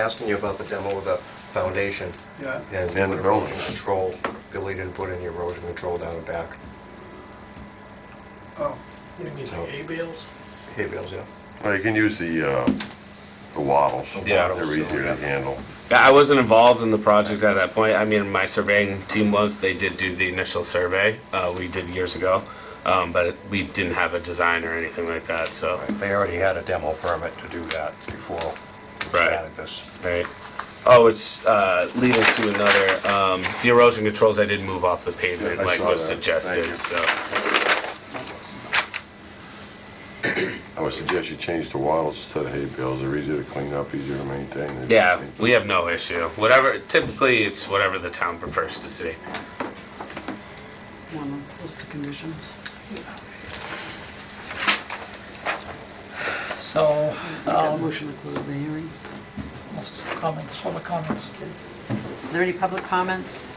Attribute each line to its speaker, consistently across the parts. Speaker 1: asking you about the demo of the foundation.
Speaker 2: Yeah.
Speaker 1: And then erosion control, Billy didn't put any erosion control down the back,
Speaker 2: Oh,
Speaker 3: What do you mean,
Speaker 1: So-
Speaker 3: like A-bales?
Speaker 1: hay bales, yeah.
Speaker 4: Well, you can use the, uh, the wattles.
Speaker 1: Yeah.
Speaker 4: They're easier to handle.
Speaker 5: Yeah, I wasn't involved in the project at that point. I mean, my surveying team was. They did do the initial survey uh, we did years ago, um, but we didn't have a design or anything like that. So,
Speaker 1: Right, They already had a demo permit to do that before we
Speaker 5: Right.
Speaker 1: added this.
Speaker 5: right. Oh, it's uh, leading to another. Um, the erosion controls I did move off the pavement,
Speaker 4: Yeah, I
Speaker 5: like
Speaker 4: saw
Speaker 5: was
Speaker 4: that.
Speaker 5: suggested.
Speaker 4: Thank
Speaker 5: So,
Speaker 4: I would suggest you change to wattles instead of hay bales. They're easier to clean up, easier to maintain. They-
Speaker 5: yeah, we have no issue. Whatever. Typically, it's whatever the town prefers to see.
Speaker 6: One of those conditions.
Speaker 3: So, um,
Speaker 6: Motion to close the hearing.
Speaker 3: also some comments, public comments.
Speaker 6: Are there any public comments?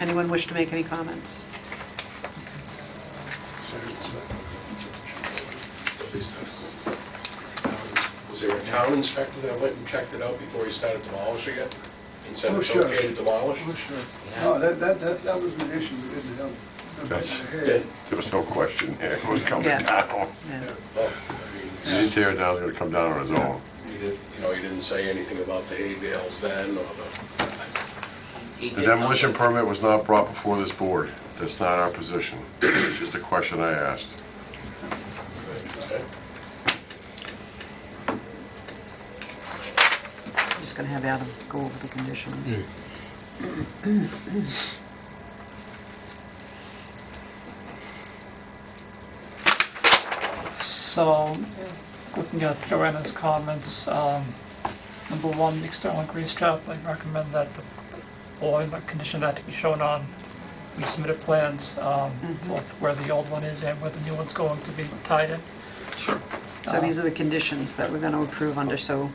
Speaker 6: Anyone wish to make any comments?
Speaker 7: Was there a town inspector that went and checked it out before he started demolishing it? And said
Speaker 2: Oh,
Speaker 7: it's
Speaker 2: sure.
Speaker 7: okay to demolish?
Speaker 2: oh, sure. No, that, that, that that was an issue, we didn't have. the back
Speaker 4: That's-
Speaker 2: of the head.
Speaker 7: Then,
Speaker 4: There was no question there. It was coming
Speaker 6: Yeah.
Speaker 4: down.
Speaker 6: Yeah.
Speaker 7: well, I
Speaker 4: You
Speaker 7: mean,
Speaker 4: didn't tear it down, it's gonna come down on its own.
Speaker 7: you didn't, you know, you didn't say anything about the hay bales then or the,
Speaker 4: The demolition permit was not brought before this board. That's not our position. It's just a question I asked.
Speaker 7: okay?
Speaker 6: I'm Just going to have Adam go over the conditions.
Speaker 3: So, looking at Joanna's comments, um, number one, external grease trap, I recommend that the board, but condition that to be shown on, we submitted plans, um, both where the old one is and where the new one's going to be tied in.
Speaker 6: So these are the conditions that we're going to approve under, so,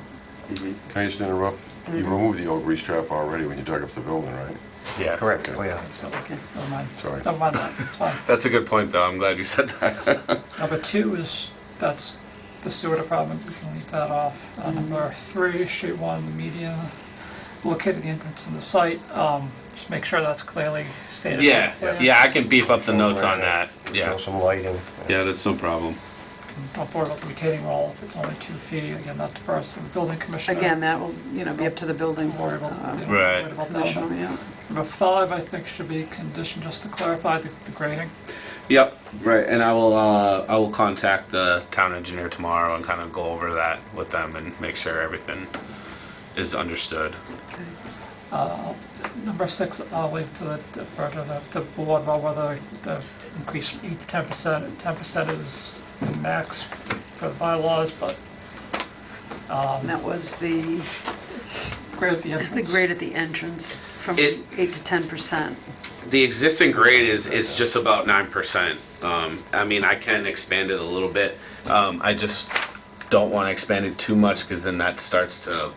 Speaker 4: Can I just interrupt? You removed the old grease trap already when you dug up the building, right?
Speaker 5: Yes.
Speaker 1: Correct, oh, yeah.
Speaker 3: So,
Speaker 6: okay.
Speaker 3: never mind.
Speaker 4: Sorry.
Speaker 3: Never mind that, it's fine.
Speaker 5: That's a good point, though. I'm glad you said that.
Speaker 3: Number two is, that's the sewer department, we can leave that off. Uh, Number three, street one, the media, located the entrance in the site, um, just make sure that's clearly stated.
Speaker 5: yeah, yeah. I can beef up the notes on that.
Speaker 1: Show
Speaker 5: Yeah,
Speaker 1: some lighting.
Speaker 5: yeah. That's no problem.
Speaker 3: Don't worry about the retaining wall, if it's only two feet, again, that's first, to the building commissioner.
Speaker 6: Again, that will, you know, be up to the building
Speaker 3: Don't worry about, you
Speaker 6: uh,
Speaker 3: know, worry
Speaker 5: Right.
Speaker 3: about that
Speaker 6: commissioner,
Speaker 3: one.
Speaker 6: yeah.
Speaker 3: Number five, I think, should be conditioned, just to clarify the the grading.
Speaker 5: Yep, right, and I will, uh, I will contact the town engineer tomorrow and kind of go over that with them and make sure everything is understood.
Speaker 3: Number six, I'll leave to the, the- for the, the board about whether the increase from eight to ten percent, ten percent is the max for the bylaws, but,
Speaker 6: And that was the,
Speaker 3: grade at the
Speaker 6: the
Speaker 3: entrance.
Speaker 6: grade at the entrance from
Speaker 5: It-
Speaker 6: 8 to 10%.
Speaker 5: The existing grade is, is just about nine percent. Um, I mean, I can expand it a little bit. Um, I just don't want to expand it too much because then that starts to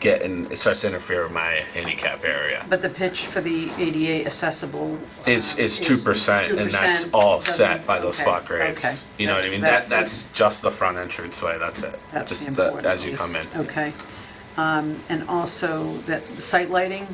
Speaker 5: get and it starts to interfere with my handicap area.
Speaker 6: But the pitch for the ADA accessible
Speaker 5: It's, it's
Speaker 6: It's
Speaker 5: two percent, and that's
Speaker 6: 2%,
Speaker 5: all
Speaker 6: doesn't-
Speaker 5: set by those
Speaker 6: okay,
Speaker 5: spot
Speaker 6: okay.
Speaker 5: grades. You know what I mean?
Speaker 6: That's-
Speaker 5: That, that's just the front entrance way, that's it.
Speaker 6: That's the
Speaker 5: Just the-
Speaker 6: important
Speaker 5: as you
Speaker 6: piece.
Speaker 5: come in.
Speaker 6: Okay. Um, And also that the site lighting,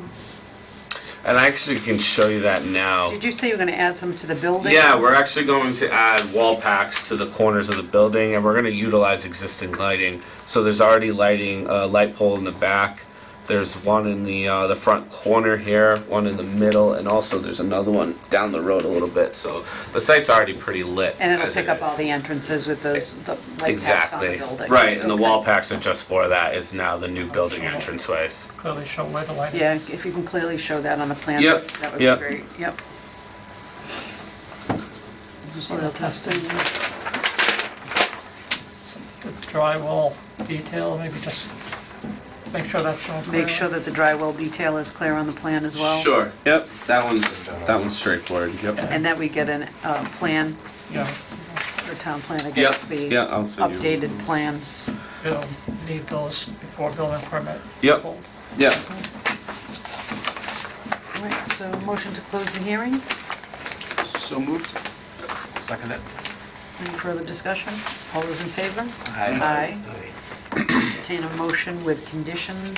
Speaker 5: And I actually can show you that now.
Speaker 6: did you say you were going to add some to the building?
Speaker 5: Yeah, we're actually going to add wall packs to the corners of the building, and we're gonna utilize existing lighting. So there's already lighting, a light pole in the back. There's one in the, uh, the front corner here, one in the middle, and also there's another one down the road a little bit, so the site's already pretty lit.
Speaker 6: And it'll
Speaker 5: as it
Speaker 6: pick up
Speaker 5: is.
Speaker 6: all the entrances with those, the light packs on the
Speaker 5: Exactly.
Speaker 6: building?
Speaker 5: Right, and the
Speaker 6: Okay.
Speaker 5: wall packs are just for that, is now the new building entranceways.
Speaker 3: Clearly show where the light is.
Speaker 6: Yeah, if you can clearly show that on the plan.
Speaker 5: Yep,
Speaker 6: That would be
Speaker 5: yep.
Speaker 6: great, yep. Soil testing,
Speaker 3: The drywall detail, maybe just make sure that's shown clearly.
Speaker 6: make sure that the drywall detail is clear on the plan as well?
Speaker 5: Sure, yep, that one's, that one's straightforward, yep.
Speaker 6: And that we get a plan,
Speaker 3: Yeah,
Speaker 6: or town plan
Speaker 5: Yep,
Speaker 6: against
Speaker 5: yeah,
Speaker 6: the
Speaker 5: I'll send you.
Speaker 6: updated plans.
Speaker 3: you'll need those before building permit.
Speaker 5: Yep.
Speaker 3: pulled.
Speaker 5: Yeah,
Speaker 6: All right, so motion to close the hearing?
Speaker 8: So moved. Second it.
Speaker 6: Any further discussion? All those in favor? Aye. entertain a motion with conditions